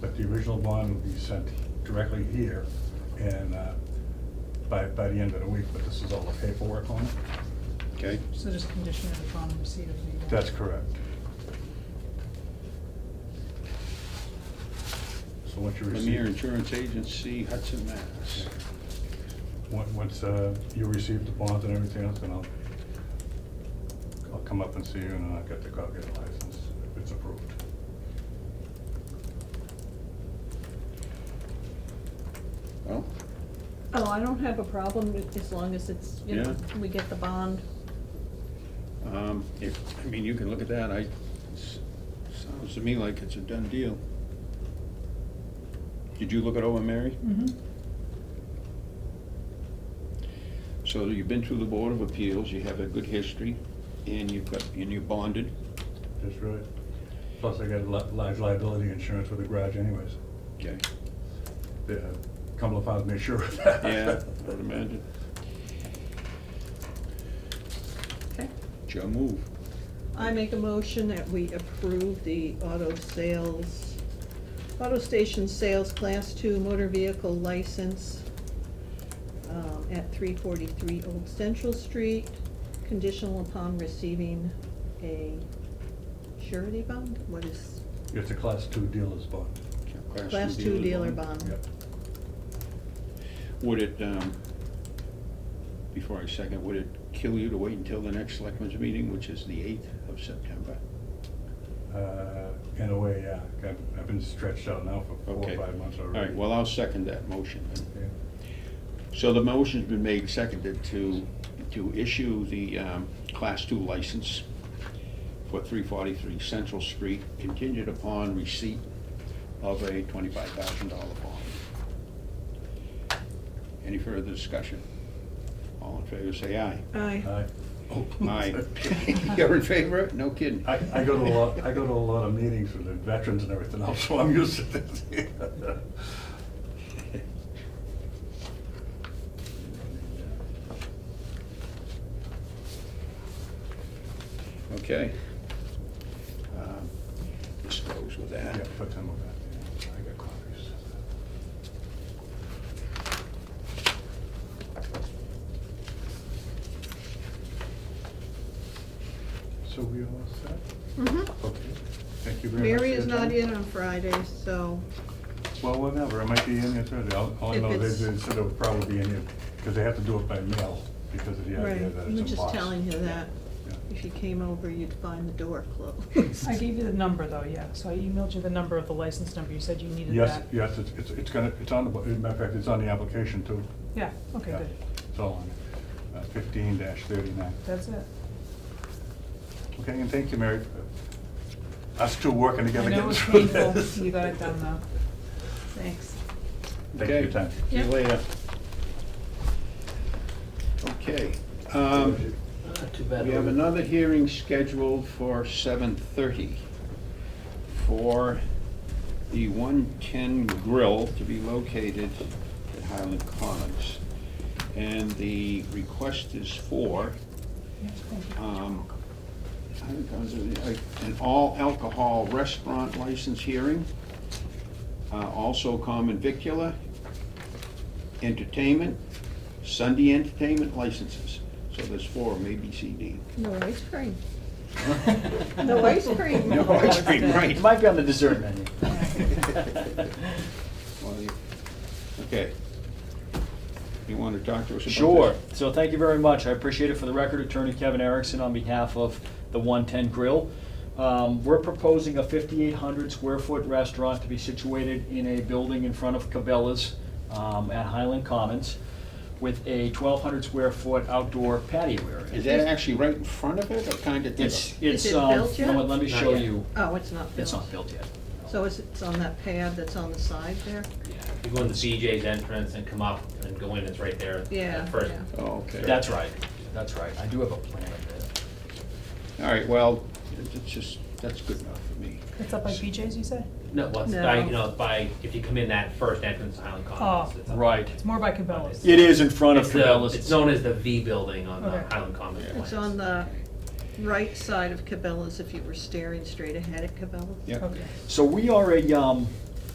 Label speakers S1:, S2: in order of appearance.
S1: but the original bond will be sent directly here and, uh, by, by the end of the week, but this is all the paperwork on it.
S2: Okay,
S3: So just conditioned upon receipt of the. uh,
S1: That's correct. So once you receive.
S2: Premier Insurance Agency, Hudson, Mass.
S1: Once, once, uh, you receive the bond and everything else, then I'll, I'll come up and see you and I'll get the copy of the license if it's approved.
S2: Well,
S4: Oh, I don't have a problem with- as long as it's, you
S2: Yeah.
S4: know, we get the bond.
S2: um, if, I mean, you can look at that, I, s- sounds to me like it's a done deal. Did you look it over, Mary?
S3: Mhm.
S4: Mm-hmm.
S2: So you've been through the Board of Appeals, you have a good history, and you've got, and you bonded.
S1: That's right. Plus I got li- large liability insurance with the garage anyways.
S2: Okay.
S1: The, uh, Cumberland Farms made sure of that.
S2: Yeah, I would imagine.
S4: Okay.
S2: Joe move.
S4: I make a motion that we approve the auto sales, auto station sales class two motor vehicle license um, at three forty-three Old Central Street, conditional upon receiving a surety bond? What is,
S1: It's a class two dealer's bond.
S4: class two dealer bond?
S1: Yep.
S2: Would it, um, before I second, would it kill you to wait until the next selectmen's meeting, which is the eighth of September?
S1: Uh, in a way, yeah, I've, I've been stretched out now for four
S2: Okay.
S1: or five months
S2: All
S1: already.
S2: right, well, I'll second that motion.
S1: Okay.
S2: So the motion's been made, seconded to, to issue the, um, class two license for three forty-three Central Street contingent upon receipt of a twenty-five thousand dollar bond. Any further discussion? All in favor, say aye.
S4: Aye.
S1: Aye. Oh,
S2: Aye. You're in favor? No kidding.
S1: I, I go to a lot, I go to a lot of meetings with the veterans and everything else, so I'm used to this. uh,
S2: Okay. Um, This goes with
S1: Yeah,
S2: that.
S1: put them on that, yeah, I got copies. So we all set?
S4: Mhm.
S1: Okay, thank you very much. for
S4: Mary is
S1: your
S4: not
S1: time.
S4: in on Friday, so,
S1: Well, whatever, it might be in there Thursday, all, all I
S4: If
S1: know
S4: it's-
S1: is that it'll probably be in here, because they have to do it by mail, because of the idea
S4: right,
S1: that it's
S4: I'm
S1: in
S4: just
S1: Boston.
S4: telling you that.
S1: Yeah.
S4: If you came over, you'd find the door closed.
S3: I gave you the number though, yeah, so I emailed you the number of the license number, you said you needed
S1: Yes,
S3: that.
S1: yes, it's, it's, it's gonna, it's on the, bu- as a matter of fact, it's on the application too.
S3: Yeah, okay,
S1: Yeah,
S3: good,
S1: It's all on Uh, fifteen thirty-nine.
S3: that's it.
S1: Okay, and thank you, Mary, for us two working
S3: I
S1: together
S3: know it
S1: getting
S3: was
S1: through
S3: painful,
S1: this.
S3: you got it done though.
S4: Thanks.
S1: Thank you for your time.
S2: See you
S4: Yep.
S2: later. Okay. um,
S5: Ah, Too bad.
S2: We have another hearing scheduled for seven thirty for the one-ten grill to be located at Highland Commons. And the request is for,
S3: Yes, thank you.
S2: um, Highland Commons, uh, an all-alcohol restaurant license hearing, uh, also common vicula, entertainment, Sunday entertainment licenses. So there's four, maybe C, D.
S4: No ice cream.
S5: No
S4: No ice cream.
S2: No ice cream, right.
S5: It might be on the dessert menu.
S2: Well, you- Okay. You want to talk to us about this?
S5: Sure. So thank you very much. I appreciate it. For the record, Attorney Kevin Erickson on behalf of the 110 Grill. Um, We're proposing a 5,800 square foot restaurant to be situated in a building in front of Cabela's um, at Highland Commons with a 1,200 square foot outdoor patio
S2: Is
S5: area.
S2: that actually right in front of it or kind of?
S5: It's,
S4: Is
S5: it's,
S4: it
S5: um,
S4: built
S5: you know
S4: yet?
S5: what, let me
S6: Not
S5: show
S6: yet.
S5: you.
S4: Oh, it's not
S5: It's
S4: built.
S5: not built yet.
S4: So it's, it's on that pad that's on the side there?
S6: Yeah, if you go in the BJ's entrance and come up and go in, it's right there.
S4: Yeah,
S6: at First,
S4: yeah.
S2: Oh, okay.
S5: That's right, that's right. I do have a plan of it.
S2: All right, well, it's just, that's good enough for me.
S3: It's up by PJ's, you say?
S6: no, well, it's by,
S4: No.
S6: you know, it's by, if you come in that first entrance to Highland Commons.
S3: Oh.
S6: it's up-
S5: Right. uh,
S3: It's more by Cabela's.
S5: It is in front of
S6: It's the,
S5: Cabela's.
S6: it's known as the V building on the
S3: Okay.
S6: Highland Commons plans.
S4: It's on the right side of Cabela's if you were staring straight ahead at Cabela's.
S2: Yeah.
S3: Okay.
S5: So we are a, um,